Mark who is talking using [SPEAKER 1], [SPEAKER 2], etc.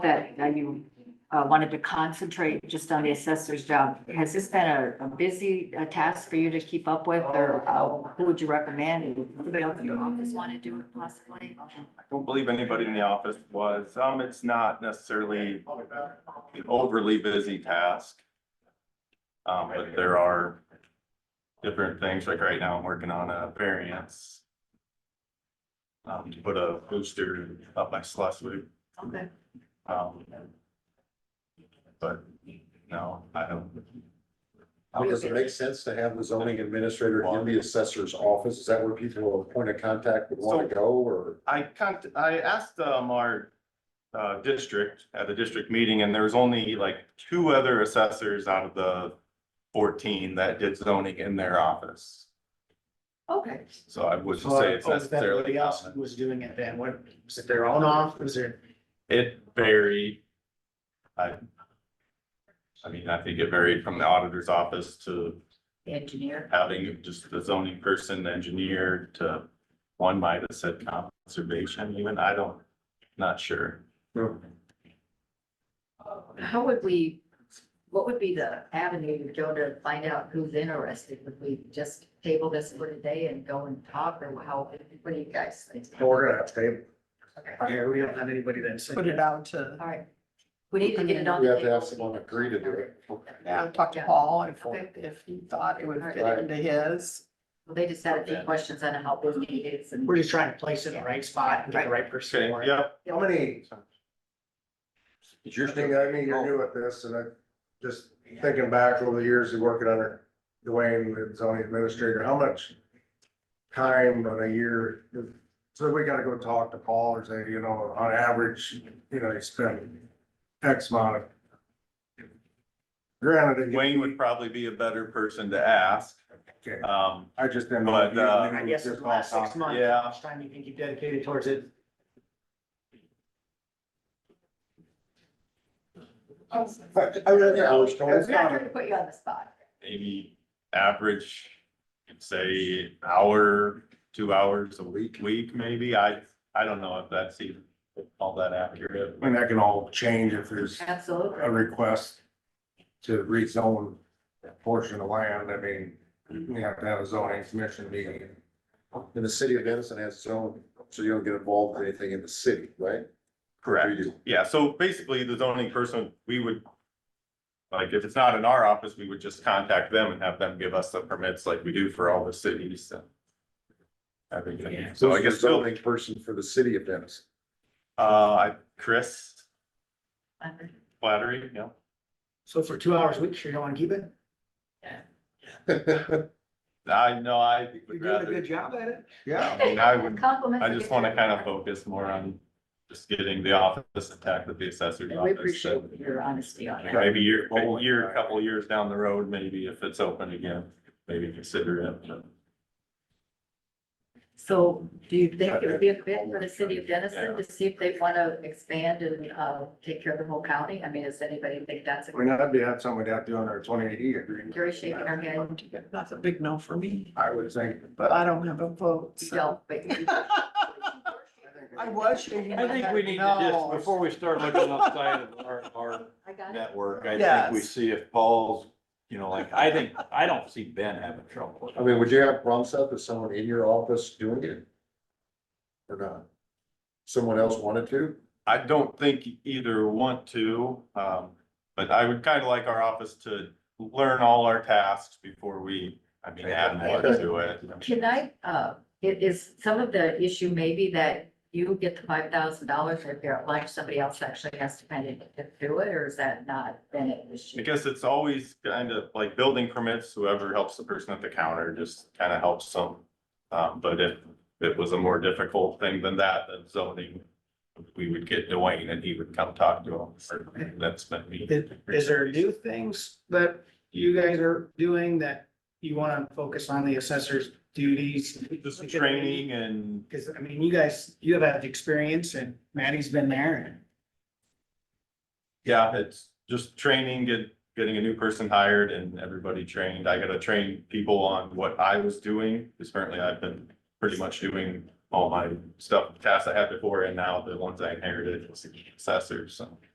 [SPEAKER 1] that, that you, uh, wanted to concentrate just on the assessor's job. Has this been a, a busy uh, task for you to keep up with, or uh, who would you recommend? Anybody else in your office want to do it possibly?
[SPEAKER 2] I don't believe anybody in the office was. Um, it's not necessarily an overly busy task. Um, but there are different things, like right now I'm working on a variance. Um, to put a booster up by Schleswig,
[SPEAKER 1] Okay.
[SPEAKER 2] um. But, no, I don't,
[SPEAKER 3] I mean, Does it make sense to have the zoning administrator in the assessor's office? Is that where people will point of contact would want to go or?
[SPEAKER 2] I can't, I asked, um, our, uh, district at the district meeting and there was only like two other assessors out of the fourteen that did zoning in their office.
[SPEAKER 1] Okay.
[SPEAKER 2] So I wouldn't
[SPEAKER 4] So
[SPEAKER 2] say
[SPEAKER 4] if
[SPEAKER 2] it's
[SPEAKER 4] everybody
[SPEAKER 2] necessarily.
[SPEAKER 4] else was doing it then, what, was it their own office or?
[SPEAKER 2] It varied. I. I mean, I think it varied from the auditor's office to
[SPEAKER 1] Engineer.
[SPEAKER 2] having just the zoning person, engineer to. One might have said conservation even, I don't, not sure.
[SPEAKER 1] How would we, what would be the avenue to go to find out who's interested? Would we just table this for today and go and talk, or how, what do you guys think?
[SPEAKER 4] We're gonna have to
[SPEAKER 1] Okay.
[SPEAKER 4] table. Yeah, we don't have anybody that's.
[SPEAKER 5] put it out to,
[SPEAKER 1] All right. We need to get it on.
[SPEAKER 3] We
[SPEAKER 1] the
[SPEAKER 3] have to
[SPEAKER 1] table.
[SPEAKER 3] have someone agree to do it.
[SPEAKER 5] yeah, talk to
[SPEAKER 1] Yeah.
[SPEAKER 5] Paul if,
[SPEAKER 1] Okay.
[SPEAKER 5] if he thought it would fit
[SPEAKER 3] Right.
[SPEAKER 5] into his.
[SPEAKER 1] Well, They just had a few questions on how big it is and.
[SPEAKER 4] We're just trying to place it in the right spot and get the right person.
[SPEAKER 2] Okay,
[SPEAKER 4] for it.
[SPEAKER 2] yep,
[SPEAKER 6] How many,
[SPEAKER 3] It's
[SPEAKER 6] I think, I mean, you're new at this, and I, just thinking back over the years of working under Dwayne, the zoning administrator, how much time on a year, so we gotta go talk to Paul or say, you know, on average, you know, you spend X amount of. Granted. it-
[SPEAKER 2] Wayne would probably be a better person to ask,
[SPEAKER 6] Okay,
[SPEAKER 2] um,
[SPEAKER 6] I just didn't. know
[SPEAKER 2] But,
[SPEAKER 6] if you
[SPEAKER 2] uh,
[SPEAKER 4] I
[SPEAKER 6] knew
[SPEAKER 4] guess in
[SPEAKER 6] just
[SPEAKER 4] the last
[SPEAKER 6] off
[SPEAKER 4] six months,
[SPEAKER 2] Yeah.
[SPEAKER 4] how much uh, time you think you dedicated towards it?
[SPEAKER 6] top. I really, I was told.
[SPEAKER 1] We're not trying to put you on the spot.
[SPEAKER 2] maybe average, say, hour, two hours a week, week maybe. I, I don't know if that's even all that accurate.
[SPEAKER 6] I mean, that can all change if there's.
[SPEAKER 1] Absolutely.
[SPEAKER 6] a request to rezone a portion of land, I mean, we have to have a zoning commission meeting.
[SPEAKER 3] And the city of Denison has its own, so you don't get involved in anything in the city, right?
[SPEAKER 2] Correct.
[SPEAKER 3] You do.
[SPEAKER 2] Yeah, so basically the zoning person, we would, like, if it's not in our office, we would just contact them and have them give us the permits like we do for all the cities and everything. So I
[SPEAKER 3] Who's the
[SPEAKER 2] guess, uh, Bill-
[SPEAKER 3] Zoning person for the city of Denison.
[SPEAKER 2] uh, Chris Flattery, yeah.
[SPEAKER 4] So for two hours a week, sure you don't want to keep it?
[SPEAKER 2] I know, I
[SPEAKER 4] You're
[SPEAKER 2] would
[SPEAKER 4] doing a
[SPEAKER 2] rather,
[SPEAKER 4] good job at it.
[SPEAKER 2] yeah, I mean, I would
[SPEAKER 1] Compliments.
[SPEAKER 2] I just want to kind of focus more on just getting the office intact with the assessor's
[SPEAKER 1] And We
[SPEAKER 2] office.
[SPEAKER 1] appreciate
[SPEAKER 2] so
[SPEAKER 1] your honesty on that.
[SPEAKER 2] Maybe a year, a year, a couple of years down the road, maybe if it's open again, maybe consider it. but-
[SPEAKER 1] So do you think it would be a fit for the city of Denison to see if they want to expand and, uh, take care of the whole county? I mean, does anybody think that's a
[SPEAKER 6] I mean, that'd be, that's something we'd have to do under twenty eighty agreement.
[SPEAKER 1] Jerry shaking her head?
[SPEAKER 5] That's a big no for me,
[SPEAKER 6] I would think,
[SPEAKER 5] but I don't have a vote,
[SPEAKER 1] You
[SPEAKER 5] so.
[SPEAKER 1] don't, but you.
[SPEAKER 5] I was shaking
[SPEAKER 7] I
[SPEAKER 5] my
[SPEAKER 7] think we
[SPEAKER 5] head,
[SPEAKER 7] need to
[SPEAKER 5] no.
[SPEAKER 7] just, before we start looking outside of our, our
[SPEAKER 1] I got it.
[SPEAKER 7] network, I think we
[SPEAKER 5] Yes.
[SPEAKER 7] see if Paul's, you know, like, I think, I don't see Ben having trouble.
[SPEAKER 3] I mean, would you have problems with that, if someone in your office doing it? Or not? Someone else wanted to?
[SPEAKER 2] I don't think either want to, um, but I would kind of like our office to learn all our tasks before we, I mean, add more to it.
[SPEAKER 1] Can I, uh, it is some of the issue maybe that you get the five thousand dollars if you're at lunch, somebody else actually has to pay to do it, or is that not been an issue?
[SPEAKER 2] Because it's always kind of like building permits, whoever helps the person at the counter just kind of helps them. Um, but if it was a more difficult thing than that, then zoning, we would get Dwayne and he would come talk to him. That's been me.
[SPEAKER 4] Is, is there new things that you guys are doing that you want to focus on the assessor's duties?
[SPEAKER 2] Just training and
[SPEAKER 4] Because I mean, you guys, you have had experience and Maddie's been there and.
[SPEAKER 2] Yeah, it's just training, get, getting a new person hired and everybody trained. I gotta train people on what I was doing. Cause currently I've been pretty much doing all my stuff, tasks I had before and now the ones I inherited was the assessor, so.